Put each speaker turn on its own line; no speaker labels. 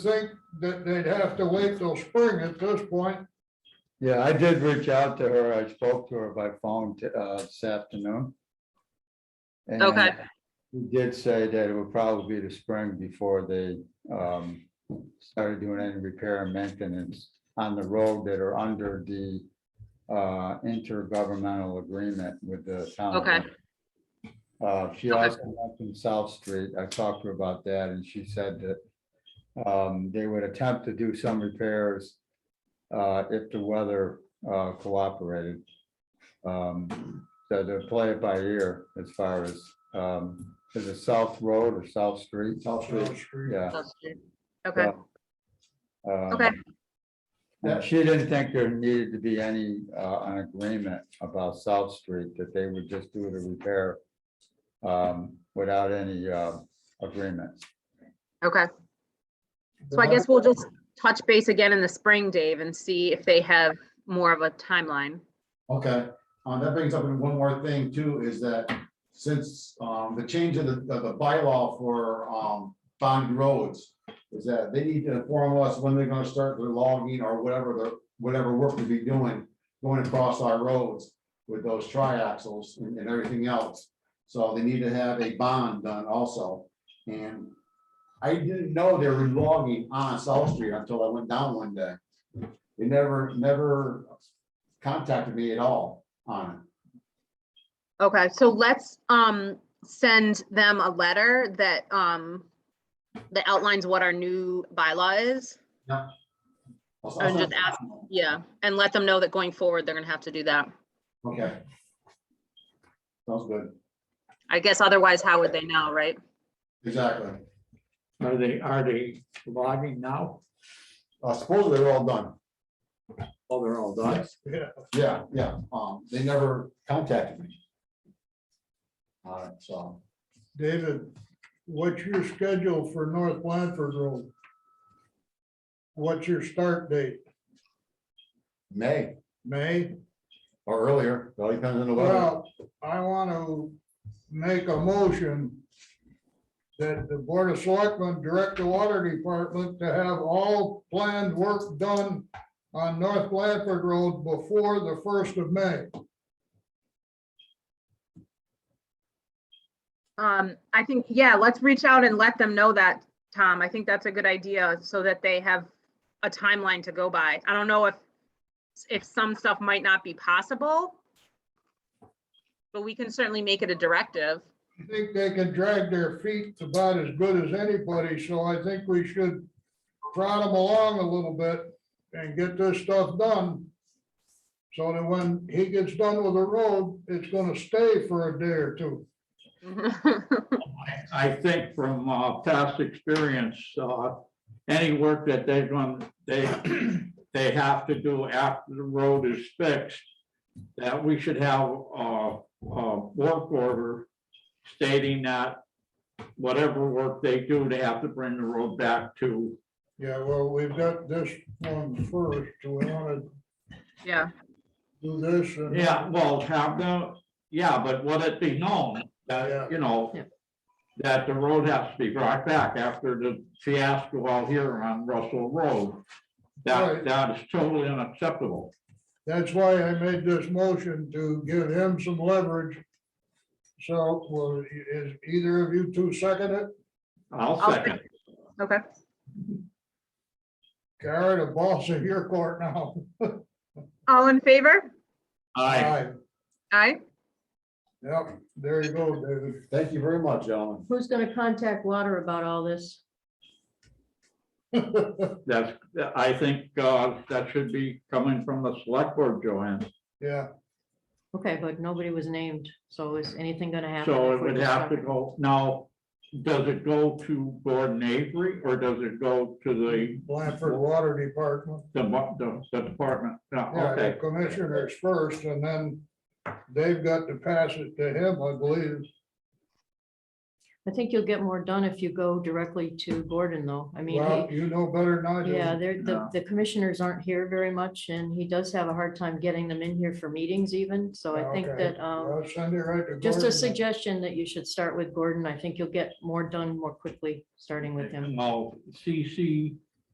think that they'd have to wait till spring at this point.
Yeah, I did reach out to her. I spoke to her by phone t- uh, this afternoon. And
Okay.
She did say that it would probably be the spring before they um, started doing any repair and maintenance on the road that are under the uh, intergovernmental agreement with the town. of
Okay.
Lynn. Uh, She
Okay.
also mentioned South Street. I talked to her about that and she said that um, they would attempt to do some repairs uh, if the weather uh, cooperated. Um, So to play it by ear as far as, um, is it South Road or South Street? South
South Street.
Yeah.
Okay,
Um,
Okay.
yeah, she didn't think there needed to be any, uh, an agreement about South Street, that they would just do the repair um, without any, uh, agreements.
okay. So I guess we'll just touch base again in the spring, Dave, and see if they have more of a timeline.
Okay, uh, that brings up one more thing too, is that since, um, the change in the, of the bylaw for, um, bond roads. Is that they need to inform us when they're gonna start their logging or whatever the, whatever work to be doing, going across our roads. With those triaxles and, and everything else, so they need to have a bond done also, and. I didn't know they were logging on South Street until I went down one day. They never, never contacted me at all on it.
Okay, so let's, um, send them a letter that, um, that outlines what our new bylaw is.
I'll-
And
Uh-huh.
I'll
just
send-
ask- Yeah, and let them know that going forward, they're gonna have to do that.
Okay. Sounds good,
I guess otherwise, how would they know, right?
exactly.
Are they, are they logging now?
Uh, supposedly they're all done.
Oh, they're all done.
Yeah, yeah, um, they never contacted me. All right, so,
David, what's your schedule for North Blanford Road? What's your start date?
May
May?
or earlier, it all depends on the weather.
Well, I want to make a motion that the Board of Selectmen direct the Water Department to have all planned work done on North Blanford Road before the first of May.
Um, I think, yeah, let's reach out and let them know that, Tom. I think that's a good idea so that they have a timeline to go by. I don't know if, if some stuff might not be possible. But we can certainly make it a directive.
I think they can drag their feet about as good as anybody, so I think we should prod them along a little bit and get this stuff done. So that when he gets done with the road, it's gonna stay for a day or two.
I I think from uh, past experience, uh, any work that they've done, they, they have to do after the road is fixed, that we should have a, a work order stating that whatever work they do, they have to bring the road back to.
Yeah, well, we've got this one first, so we wanna
Yeah,
do this and.
Yeah, well, have the, yeah, but let it be known
Yeah.
that, you know, that the road has to be brought back after the fiasco out here on Russell Road.
Right.
That, that is totally unacceptable.
That's why I made this motion to give him some leverage. So, will, is either of you two second it?
I'll
I'll
second.
okay.
Gary, the ball's in your court now.
All in favor?
I,
Aye.
Aye.
Yep, there you go, David.
Thank you very much, gentlemen.
Who's gonna contact water about all this?
Uh,
that's, I think, uh, that should be coming from the select board, Joanne.
Yeah,
Okay, but nobody was named, so is anything gonna happen?
So
if
it
we
would
just
have to
talk-
go, now, does it go to Gordon Avery or does it go to the,
Blanford Water Department,
the, the- the department? No,
yeah,
Okay.
the commissioners first, and then they've got to pass it to him, I believe.
I think you'll get more done if you go directly to Gordon, though. I mean,
Well,
he-
you know better than I do.
yeah, they're, the,
No.
the commissioners aren't here very much, and he does have a hard time getting them in here for meetings even, so I think
Okay.
that, um,
Well, Send it right to.
just a
Gordon.
suggestion that you should start with Gordon. I think you'll get more done more quickly, starting with him.
Well, CC